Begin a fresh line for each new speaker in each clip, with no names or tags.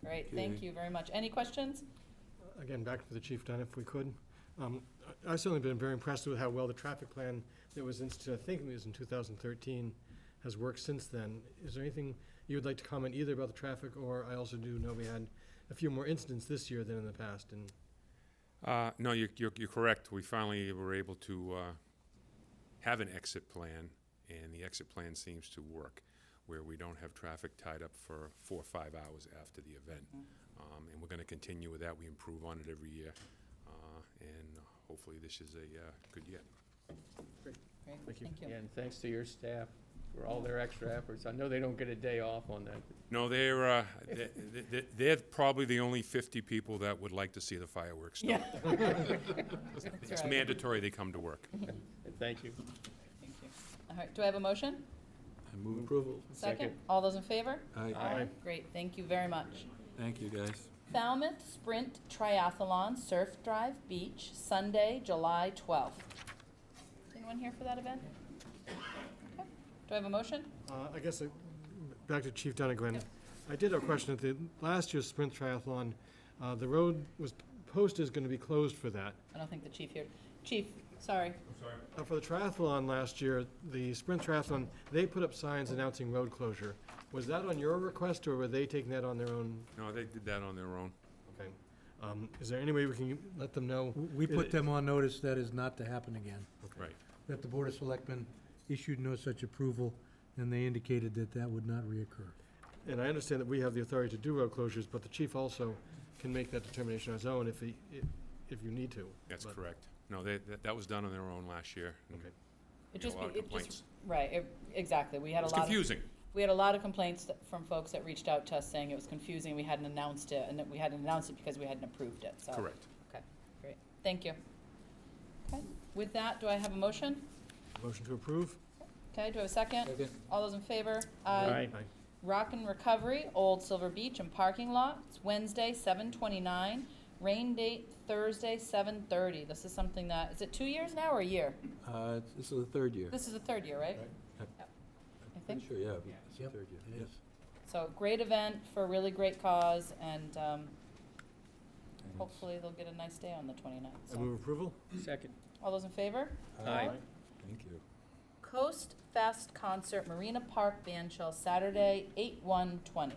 Great, thank
Okay.
you very much. Any questions?
Again, back to the chief, Dunn, if we could. Um, I- I've certainly been very impressed with how well the traffic plan that was instituted, I think it was in 2013, has worked since then. Is there anything you would like to comment either about the traffic, or I also do know we had a few more incidents this year than in the past, and
Uh, no, you're, you're, you're correct. We finally were able to uh, have an exit plan, and the exit plan seems to work, where we don't have traffic tied up for four or five hours after the event.
Mm-hmm.
Um, and we're going to continue with that. We improve on it every year, uh, and hopefully this is a uh, good year.
Great,
Thank you.
thank you.
And thanks to your staff for all their extra efforts. I know they don't get a day off on that.
No, they're uh, they, they, they're probably the only 50 people that would like to see the fireworks. Stop.
Yeah.
It's
That's right, Mm-hmm.
mandatory they come to work.
And Thank you.
thank you. All right, do I have a motion?
I move approval.
Second?
Second.
All those in favor?
Aye.
Great, thank you very much.
Thank you, guys.
Falmouth Sprint Triathlon Surf Drive Beach, Sunday, July 12th. Is anyone here for that event? Okay. Do I have a motion?
Uh, I guess, uh, back to Chief Dunnigan. I did have a question at the last year's sprint triathlon. uh, The road was posted is going to be closed for that.
I don't think the chief here. Chief, sorry.
Uh, For the triathlon last year, the sprint triathlon, they put up signs announcing road closure. Was that on your request, or were they taking that on their own?
No, they did that on their own.
Okay. Um, Is there any way we can let them know?
We put them on notice that is not to happen again,
Right.
that the Board of Selectmen issued no such approval, and they indicated that that would not reoccur.
And I understand that we have the authority to do road closures, but the chief also can make that determination on his own if he, if- if you need to.
That's
But-
correct. No, they, that, that was done on their own last year. and
Okay.
It
we had
just
a
be-
lot of
it just-
complaints.
Right, it- exactly. We had a
It's
lot of.
confusing.
We had a lot of complaints th- from folks that reached out to us saying it was confusing, we hadn't announced it, and that we hadn't announced it because we hadn't approved it, so.
Correct.
Okay, great, thank you. Okay, with that, do I have a motion?
Motion to approve?
Okay, do I have a second?
Second.
All those in favor?
Aye.
Rock and Recovery, Old Silver Beach and Parking Lot, it's Wednesday, seven twenty-nine, rain date Thursday, seven thirty. This is something that, is it two years now or a year?
Uh, This is the third year.
This is the third year, right?
Right.
Yep. I
Pretty
think.
sure, yeah. It's the
Yep,
third year.
it
yeah.
is.
So, great event for a really great cause, and um, hopefully they'll get a nice day on the 29th.
I
So.
move approval?
Second.
All those in favor?
Aye.
Thank you.
Coast Fest Concert, Marina Park Band Shell, Saturday, 8/1/20.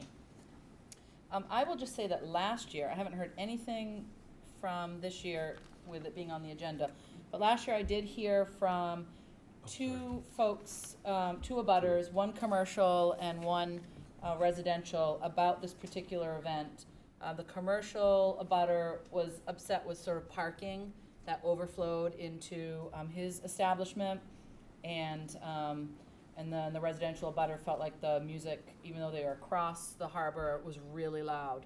Um, I will just say that last year, I haven't heard anything from this year with it being on the agenda, but last year I did hear from two folks, um, two abutters, one commercial and one uh, residential, about this particular event. Uh, the commercial abutter was upset with sort of parking that overflowed into um, his establishment. And, um, and then the residential abutter felt like the music, even though they were across the harbor, was really loud.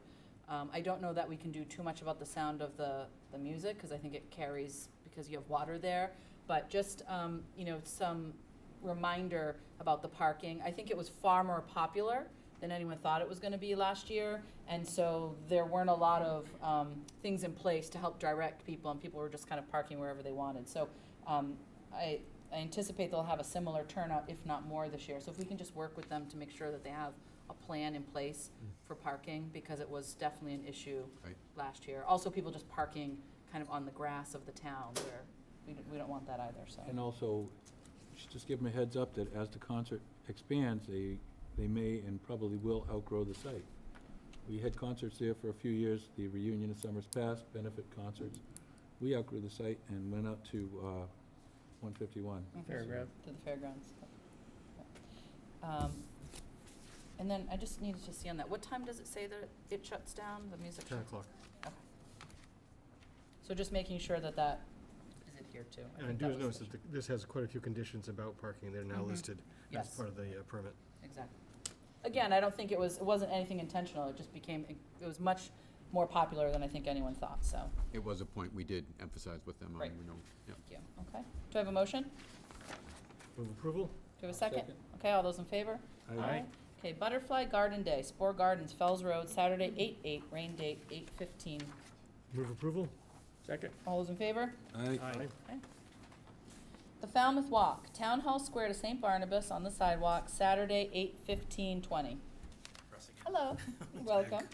Um, I don't know that we can do too much about the sound of the, the music, because I think it carries, because you have water there. But just, um, you know, some reminder about the parking. I think it was far more popular than anyone thought it was gonna be last year. And so there weren't a lot of, um, things in place to help direct people, and people were just kind of parking wherever they wanted. So, um, I, I anticipate they'll have a similar turnout, if not more, this year. So if we can just work with them to make sure that they have a plan in place for parking, because it was definitely an issue
Right.
last year. Also, people just parking kind of on the grass of the town, where we, don't- we don't want that either, so.
And also, just- just give them a heads up that as the concert expands, they, they may and probably will outgrow the site. We had concerts there for a few years, the reunion of Summers Past, benefit concerts. We outgrew the site and went up to uh, 151.
Paragraph.
to the fairgrounds. Um, And then I just needed to see on that, what time does it say that it shuts down, the music?
10
shuts-
o'clock.
Okay. So just making sure that that is adhered to.
And I
think
do
that was
notice
the-
that the- this has quite a few conditions about parking. They're now
Mhm.
listed as
Yes.
part of the uh, permit.
Exactly. Again, I don't think it was, it wasn't anything intentional, it just became, it was much more popular than I think anyone thought, so,
It was a point we did emphasize with them,
Right.
on. we know, yeah.
thank you, okay. Do I have a motion? Do
Move approval?
I have a second?
Second.
Okay, all those in favor?
Aye.
Okay, Butterfly Garden Day, Spore Gardens, Fells Road, Saturday, eight eight, rain date eight fifteen.
Move approval?
Second.
All those in favor?
Aye.
The Falmouth Walk, Town Hall Square to St. Barnabas on the sidewalk, Saturday, eight fifteen twenty. Hello, welcome.